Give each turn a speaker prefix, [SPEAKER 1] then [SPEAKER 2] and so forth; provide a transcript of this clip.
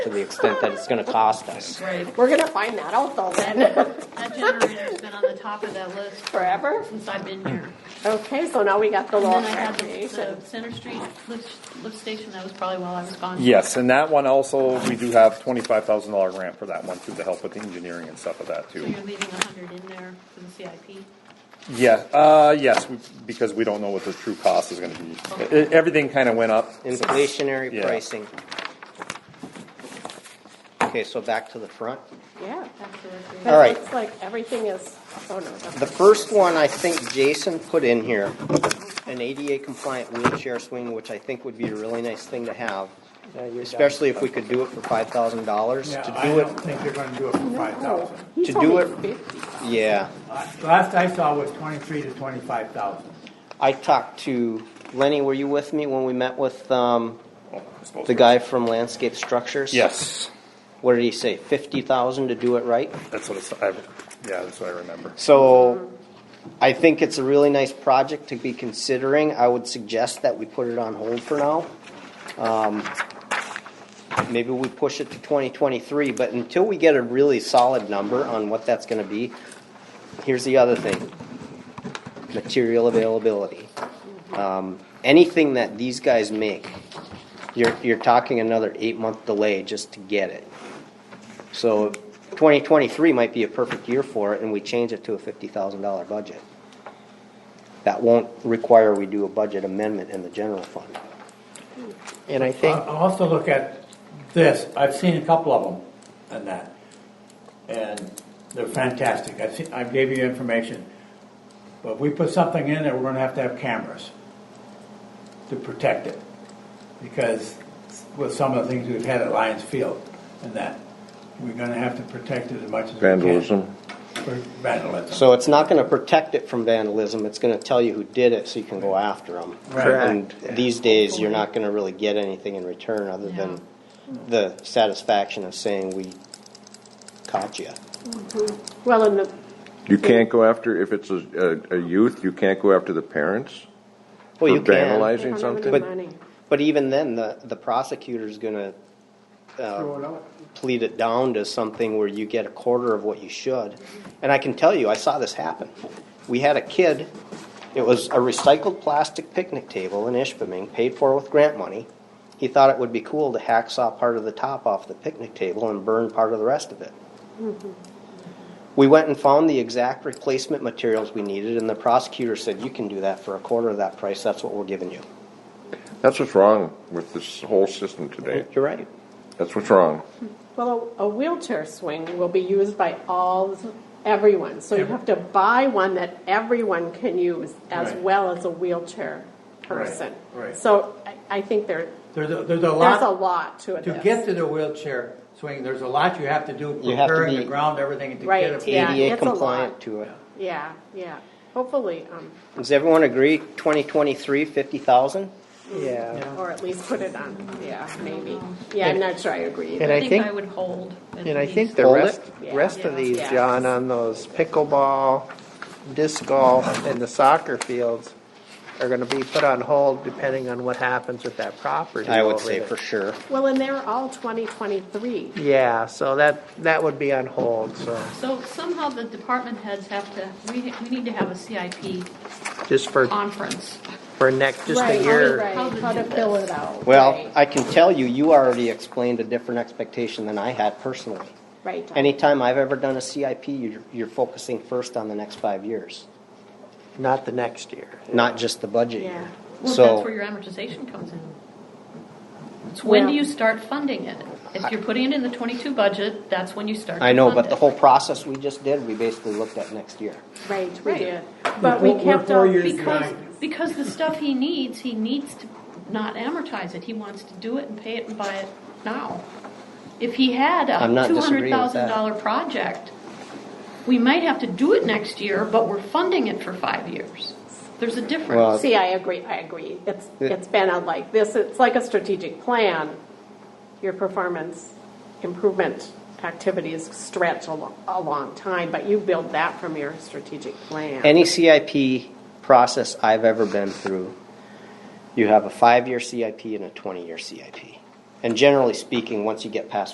[SPEAKER 1] to the extent that it's going to cost us.
[SPEAKER 2] Right.
[SPEAKER 3] We're gonna find that out though then,
[SPEAKER 2] That generator's been on the top of that list
[SPEAKER 3] forever.
[SPEAKER 2] since I've been here.
[SPEAKER 3] Okay, so now we got the
[SPEAKER 2] And
[SPEAKER 3] law
[SPEAKER 2] then I had the-
[SPEAKER 3] recreation.
[SPEAKER 2] the Center Street lift, lift station, that was probably while I was gone.
[SPEAKER 4] Yes, and that one also, we do have twenty-five thousand dollar grant for that one through the help with the engineering and stuff of that
[SPEAKER 2] So
[SPEAKER 4] too.
[SPEAKER 2] you're leaving a hundred in there for the CIP?
[SPEAKER 4] Yeah, uh, yes, we- because we don't know what the true cost is gonna be. E- e- Everything kinda went up.
[SPEAKER 1] Inflationary
[SPEAKER 4] Yeah.
[SPEAKER 1] pricing. Okay, so back to the front.
[SPEAKER 3] Yeah.
[SPEAKER 2] That's the recreation.
[SPEAKER 3] But
[SPEAKER 1] All right.
[SPEAKER 3] It looks like everything is, oh no.
[SPEAKER 1] The first one I think Jason put in here, an ADA compliant wheelchair swing, which I think would be a really nice thing to have. Especially if we could do it for five thousand dollars.
[SPEAKER 5] Yeah,
[SPEAKER 1] To
[SPEAKER 5] I
[SPEAKER 1] do
[SPEAKER 5] don't
[SPEAKER 1] it,
[SPEAKER 5] think they're gonna do it for five thousand.
[SPEAKER 3] He's
[SPEAKER 1] To do
[SPEAKER 3] only
[SPEAKER 1] it-
[SPEAKER 3] 50.
[SPEAKER 1] yeah.
[SPEAKER 5] Last I saw was twenty-three to twenty-five thousand.
[SPEAKER 1] I talked to, Lenny, were you with me when we met with, um,
[SPEAKER 4] Oh, I suppose-
[SPEAKER 1] the guy from Landscape Structures?
[SPEAKER 4] Yes,
[SPEAKER 1] What did he say, fifty thousand to do it right?
[SPEAKER 4] that's what it's, I, yeah, that's what I remember.
[SPEAKER 1] So I think it's a really nice project to be considering. I would suggest that we put it on hold for now. Um, Maybe we push it to 2023, but until we get a really solid number on what that's gonna be, here's the other thing. Material availability. Um, Anything that these guys make, you're, you're talking another eight-month delay just to get it. So 2023 might be a perfect year for it, and we change it to a $50,000 budget. That won't require we do a budget amendment in the general fund. And I think,
[SPEAKER 5] I Uh, also look at this, I've seen a couple of them and that, and they're fantastic. I've seen, I gave you information. But if we put something in there, we're gonna have to have cameras to protect it. Because with some of the things we've had at Lions Field and that, we're gonna have to protect it as much as we can.
[SPEAKER 6] Vandalism.
[SPEAKER 5] For Vandalism.
[SPEAKER 1] so it's not gonna protect it from vandalism, it's gonna tell you who did it, so you can go after them.
[SPEAKER 5] Correct.
[SPEAKER 1] And these days, you're not gonna really get anything in return, other than the satisfaction of saying, we caught you.
[SPEAKER 3] Well, in the,
[SPEAKER 6] You can't go after, if it's a, a, a youth, you can't go after the parents
[SPEAKER 1] Well, you
[SPEAKER 6] for
[SPEAKER 1] can.
[SPEAKER 3] they
[SPEAKER 6] vandalizing
[SPEAKER 3] don't have
[SPEAKER 6] something.
[SPEAKER 3] any money.
[SPEAKER 1] But even then, the, the prosecutor's gonna, uh, plead it down to something where you get a quarter of what you should. And I can tell you, I saw this happen. We had a kid, it was a recycled plastic picnic table in Ishpeming, paid for with grant money. He thought it would be cool to hacksaw part of the top off the picnic table and burn part of the rest of it. We went and found the exact replacement materials we needed, and the prosecutor said, you can do that for a quarter of that price, that's what we're giving you.
[SPEAKER 6] That's what's wrong with this whole system today.
[SPEAKER 1] You're right.
[SPEAKER 6] That's what's wrong.
[SPEAKER 3] Well, a a wheelchair swing will be used by all, everyone, so you have to buy one that everyone can use as
[SPEAKER 5] Right.
[SPEAKER 3] well as a wheelchair person.
[SPEAKER 5] right.
[SPEAKER 3] So I, I think there,
[SPEAKER 5] There's a, there's a lot.
[SPEAKER 3] there's a lot to it.
[SPEAKER 5] To
[SPEAKER 3] that's-
[SPEAKER 5] get to the wheelchair swing, there's a lot you have to do,
[SPEAKER 1] You have to
[SPEAKER 5] preparing the
[SPEAKER 1] be-
[SPEAKER 5] ground, everything to
[SPEAKER 3] Right,
[SPEAKER 5] get it.
[SPEAKER 3] Yeah,
[SPEAKER 1] ADA
[SPEAKER 3] it's a lot.
[SPEAKER 1] compliant to it.
[SPEAKER 3] Yeah, yeah, hopefully, um,
[SPEAKER 1] Does everyone agree, 2023, 50,000?
[SPEAKER 7] Yeah,
[SPEAKER 3] or at least put it on, yeah, maybe. Yeah, I'm not sure I agree either.
[SPEAKER 7] and I think-
[SPEAKER 2] I would hold. at
[SPEAKER 7] and I
[SPEAKER 2] least.
[SPEAKER 7] think the
[SPEAKER 1] Hold
[SPEAKER 7] rest,
[SPEAKER 3] it?
[SPEAKER 7] rest of these,
[SPEAKER 3] Yeah.
[SPEAKER 7] John, on those pickleball, disc golf, and the soccer fields are gonna be put on hold depending on what happens with that property.
[SPEAKER 1] I would
[SPEAKER 7] over
[SPEAKER 1] say
[SPEAKER 7] there.
[SPEAKER 1] for sure.
[SPEAKER 3] Well, and they're all 2023.
[SPEAKER 7] Yeah, so that, that would be on hold, so,
[SPEAKER 2] So somehow the department heads have to, we, we need to have a CIP
[SPEAKER 7] just for,
[SPEAKER 2] conference.
[SPEAKER 7] for next, just
[SPEAKER 3] Right,
[SPEAKER 7] a year.
[SPEAKER 3] right, How to fill it out.
[SPEAKER 1] Well,
[SPEAKER 3] right,
[SPEAKER 1] I can tell you, you already explained a different expectation than I had personally.
[SPEAKER 3] Right.
[SPEAKER 1] Anytime I've ever done a CIP, you're, you're focusing first on the next five years,
[SPEAKER 7] Not the next year.
[SPEAKER 1] not just the budget
[SPEAKER 3] Yeah.
[SPEAKER 1] year.
[SPEAKER 2] Well, that's where
[SPEAKER 1] So,
[SPEAKER 2] your amortization comes in. It's when do
[SPEAKER 3] Well-
[SPEAKER 2] you start funding it? If you're putting it in the twenty-two budget, that's when you start. to
[SPEAKER 1] I know,
[SPEAKER 2] fund
[SPEAKER 1] but the
[SPEAKER 2] it.
[SPEAKER 1] whole process we just did, we basically looked at next year.
[SPEAKER 3] Right, we
[SPEAKER 2] Right.
[SPEAKER 3] did. But we
[SPEAKER 5] We're- we're
[SPEAKER 3] kept
[SPEAKER 5] four
[SPEAKER 3] on,
[SPEAKER 5] years
[SPEAKER 2] Because,
[SPEAKER 5] Right.
[SPEAKER 2] because the stuff he needs, he needs to not amortize it. He wants to do it and pay it and buy it now. If he had a
[SPEAKER 1] I'm not
[SPEAKER 2] two
[SPEAKER 1] disagreeing
[SPEAKER 2] hundred
[SPEAKER 1] with
[SPEAKER 2] thousand dollar
[SPEAKER 1] that.
[SPEAKER 2] project, we might have to do it next year, but we're funding it for five years. There's a
[SPEAKER 1] Well,
[SPEAKER 2] difference.
[SPEAKER 3] see, I agree, I agree. It's,
[SPEAKER 1] Yeah.
[SPEAKER 3] it's been a like this, it's like a strategic plan. Your performance improvement activities stretch a lo- a long time, but you build that from your strategic plan.
[SPEAKER 1] Any CIP process I've ever been through, you have a five-year CIP and a twenty-year CIP. And generally speaking, once you get past